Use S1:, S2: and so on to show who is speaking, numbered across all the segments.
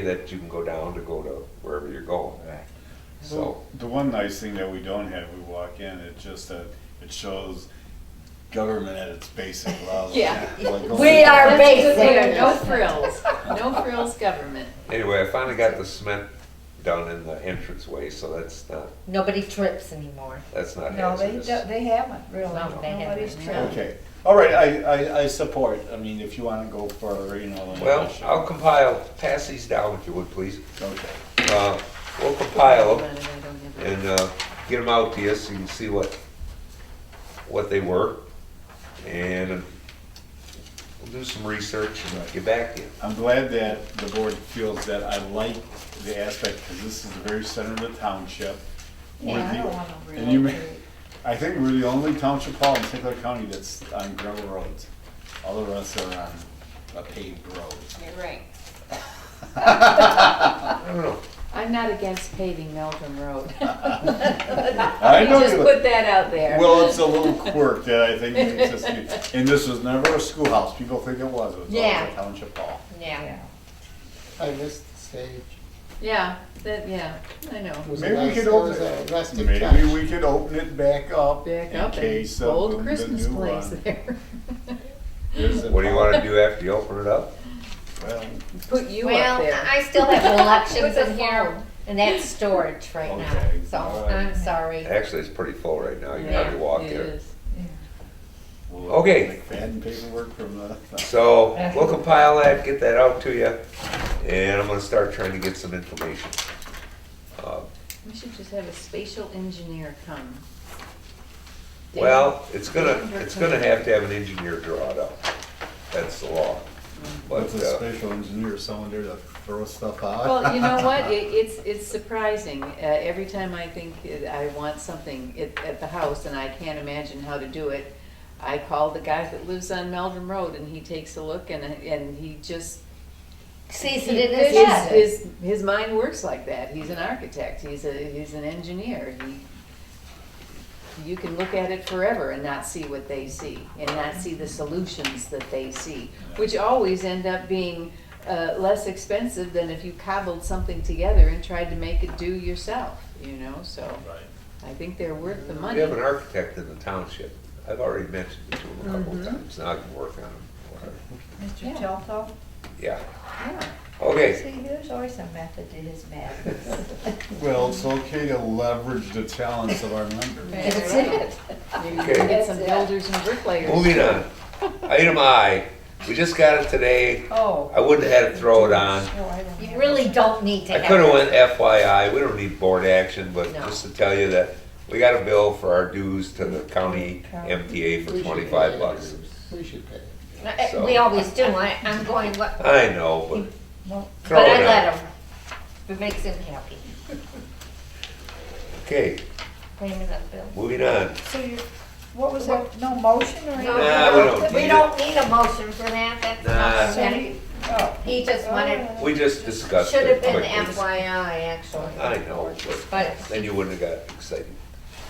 S1: that you can go down to go to wherever you're going.
S2: Right.
S1: So,
S3: The one nice thing that we don't have, we walk in, it just, uh, it shows government at its basic level.
S4: Yeah.
S3: Like, oh,
S2: We are-
S4: That's a good way to-
S2: basic.
S4: No frills, no frills government.
S1: anyway, I finally got the cement done in the entranceway, so that's not,
S2: Nobody trips anymore.
S1: that's not
S5: No, they,
S1: hazardous.
S5: don't- they haven't really,
S2: No, they
S5: nobody's
S2: haven't.
S5: tripped.
S3: Okay, all right, I, I, I support, I mean, if you wanna go for, you know. the-
S1: Well, I'll compile, pass these down if you would, please.
S3: Okay,
S1: Uh, We'll compile
S4: But I
S1: them
S4: don't have it.
S1: and uh, get them out to you so you can see what, what they were. And um, we'll do some research and get back to you.
S3: I'm glad that the board feels that I like the aspect, cause this is the very center of the township. We're
S5: Yeah, I
S3: the-
S5: don't wanna
S3: And you may,
S5: relocate.
S3: I think we're the only township hall in St. Clair County that's on gravel roads. All the rest are on a paved road.
S4: You're right.
S1: I don't know.
S4: I'm not against paving Meldrum Road.
S3: I know
S4: Just
S3: you-
S4: put that out there.
S3: Well, it's a little quirk that I think makes us, unique. and this was never a schoolhouse, people think it was, it was always
S2: Yeah.
S3: a township hall.
S2: Yeah.
S6: I missed the stage.
S4: Yeah, that, yeah, I know.
S6: It was a
S3: Maybe we
S6: nice-
S3: could
S6: it was
S3: open
S6: a rustic touch.
S3: Maybe we could open it back up
S4: Back
S3: in
S4: up
S3: case
S4: and
S3: of the
S4: old
S3: the
S4: Christmas
S3: new
S4: place
S3: one.
S4: there.
S3: There's a-
S1: What do you want to do after you open it up?
S3: Well,
S4: Put you up
S2: Well,
S4: there.
S2: I still have
S4: With
S2: elections
S4: a
S2: in here,
S4: phone.
S2: and that's storage right now,
S3: Okay,
S2: so
S3: all right.
S2: I'm sorry.
S1: Actually, it's pretty full right
S3: Oh,
S1: now. You can
S4: Yeah,
S1: hardly walk
S4: it
S1: there.
S4: is.
S3: we'll
S1: Okay.
S3: make That and paperwork from the,
S1: So we'll compile that, get that out to you, and I'm gonna start trying to get some information. Uh,
S4: We should just have a spatial engineer come.
S1: Well, it's gonna, it's gonna have to have an engineer draw it up. That's the law. But,
S3: what's a
S1: uh,
S3: special engineer, someone there to throw stuff out?
S4: Well, you know what, it, it's, it's surprising, uh, every time I think I want something at, at the house and I can't imagine how to do it, I call the guy that lives on Melvin Road and he takes a look and, and he just.
S2: Sees
S4: he-
S2: it in his
S4: his-
S2: head.
S4: His, his mind works like that, he's an architect, he's a, he's an engineer, he, you can look at it forever and not see what they see, and not see the solutions that they see, which always end up being uh, less expensive than if you cobbled something together and tried to make it do yourself, you know, so
S3: Right.
S4: I think they're worth the
S1: we
S4: money.
S1: have an architect in the township. I've already mentioned it to him a couple of
S4: Mhm.
S1: times. Now I can work on him.
S5: Mr.
S4: Yeah.
S5: Telto,
S1: Yeah,
S4: Yeah.
S1: okay.
S5: see, there's always a method to his madness.
S3: Well, it's okay to leverage the talents of our members.
S2: That's it.
S4: Maybe you can get some
S5: Okay.
S4: builders and bricklayers.
S1: Moving on. Item I, we just got it today.
S5: Oh.
S1: I wouldn't have had to throw it on.
S5: No, I don't
S2: You
S5: have-
S2: really don't need to
S1: I
S2: have.
S1: could have
S2: it.
S1: went FYI, we don't need board action, but
S2: No.
S1: just to tell you that we got a bill for our dues to the county MTA
S6: We
S1: for
S6: should
S1: twenty-five
S6: pay.
S1: bucks.
S6: We should pay.
S2: No, eh,
S1: so-
S2: We always do, I, I'm going, what,
S1: I know, but
S5: No,
S1: throw
S2: but I
S1: it out.
S2: let him. It makes him happy.
S1: Okay,
S2: Payment of bill.
S1: moving on.
S5: So you, what was that, no motion or anything?
S1: Nah, we don't need
S2: We
S1: it.
S2: don't need a motion for that, that's
S1: Nah.
S2: not,
S5: So
S2: that-
S5: you- oh.
S2: he just wanted,
S1: We just discussed
S2: should have
S1: it
S2: been
S1: quickly.
S2: FYI, actually.
S1: I know, but
S2: But
S1: then you wouldn't have got excited.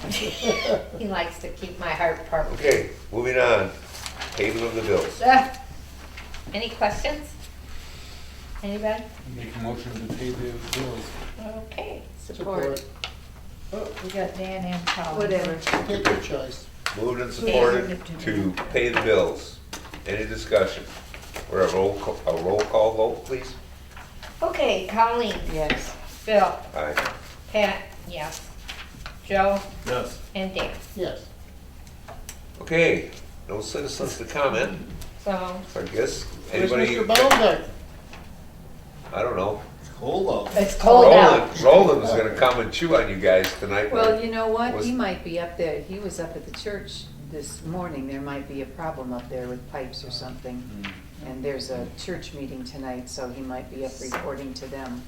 S2: he likes to keep my heart purple.
S1: Okay, moving on. Payment of the bills.
S5: Ah,
S2: Any questions? Anybody?
S3: Make a motion to pay the bills.
S2: Okay.
S4: Support,
S5: oh, We got Dan and Colin.
S4: whatever.
S6: Take your choice.
S1: Moved and supported to pay the bills. Any discussion? Or a roll, ca- a roll call vote, please?
S2: Okay, Colleen,
S4: Yes.
S2: Bill,
S1: Aye.
S2: Pat, yes. Joe
S3: Yes.
S2: and Dan.
S6: Yes.
S1: Okay, no citizens to comment,
S2: So,
S1: I guess.
S6: Where's
S1: Anybody?
S6: Mr. Baumgartner?
S1: I don't know.
S3: Hold up.
S2: it's cold out.
S1: Roland, Roland was gonna come and chew on you guys tonight.
S4: Well, you know what,
S1: Was-
S4: he might be up there, he was up at the church this morning, there might be a problem up there with pipes or something.
S1: Hmm.
S4: And there's a church meeting tonight, so he might be up reporting to them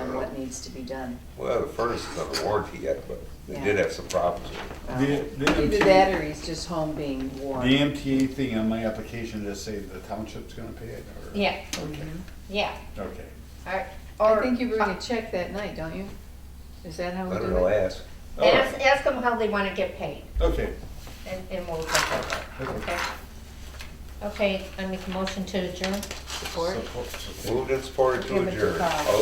S4: on what needs to be done.
S1: Well, the furnace is under warranty yet, but they did
S4: Yeah.
S1: have some problems. with it.
S4: Um,
S3: The- the-
S4: Either that or he's just home being warm.
S3: The MTA thing on my application, does say the township's gonna pay it, or?
S2: Yeah,
S3: Okay,
S2: yeah.
S3: okay.
S2: All
S4: I
S2: right.
S4: think you bring a check that night, don't you? Is that how we
S1: Ah. I don't
S4: do
S1: know,
S4: it?
S1: ask.
S3: All
S2: uh, Ask,
S3: right.
S2: ask them how they want to get paid
S3: Okay,
S2: and, and we'll go over it, okay? Okay, I make a motion to adjourn.
S7: Support?
S8: Support- support.
S1: Moved and supported to
S3: Give it to
S1: adjourn. Oh,
S3: Bob.
S1: All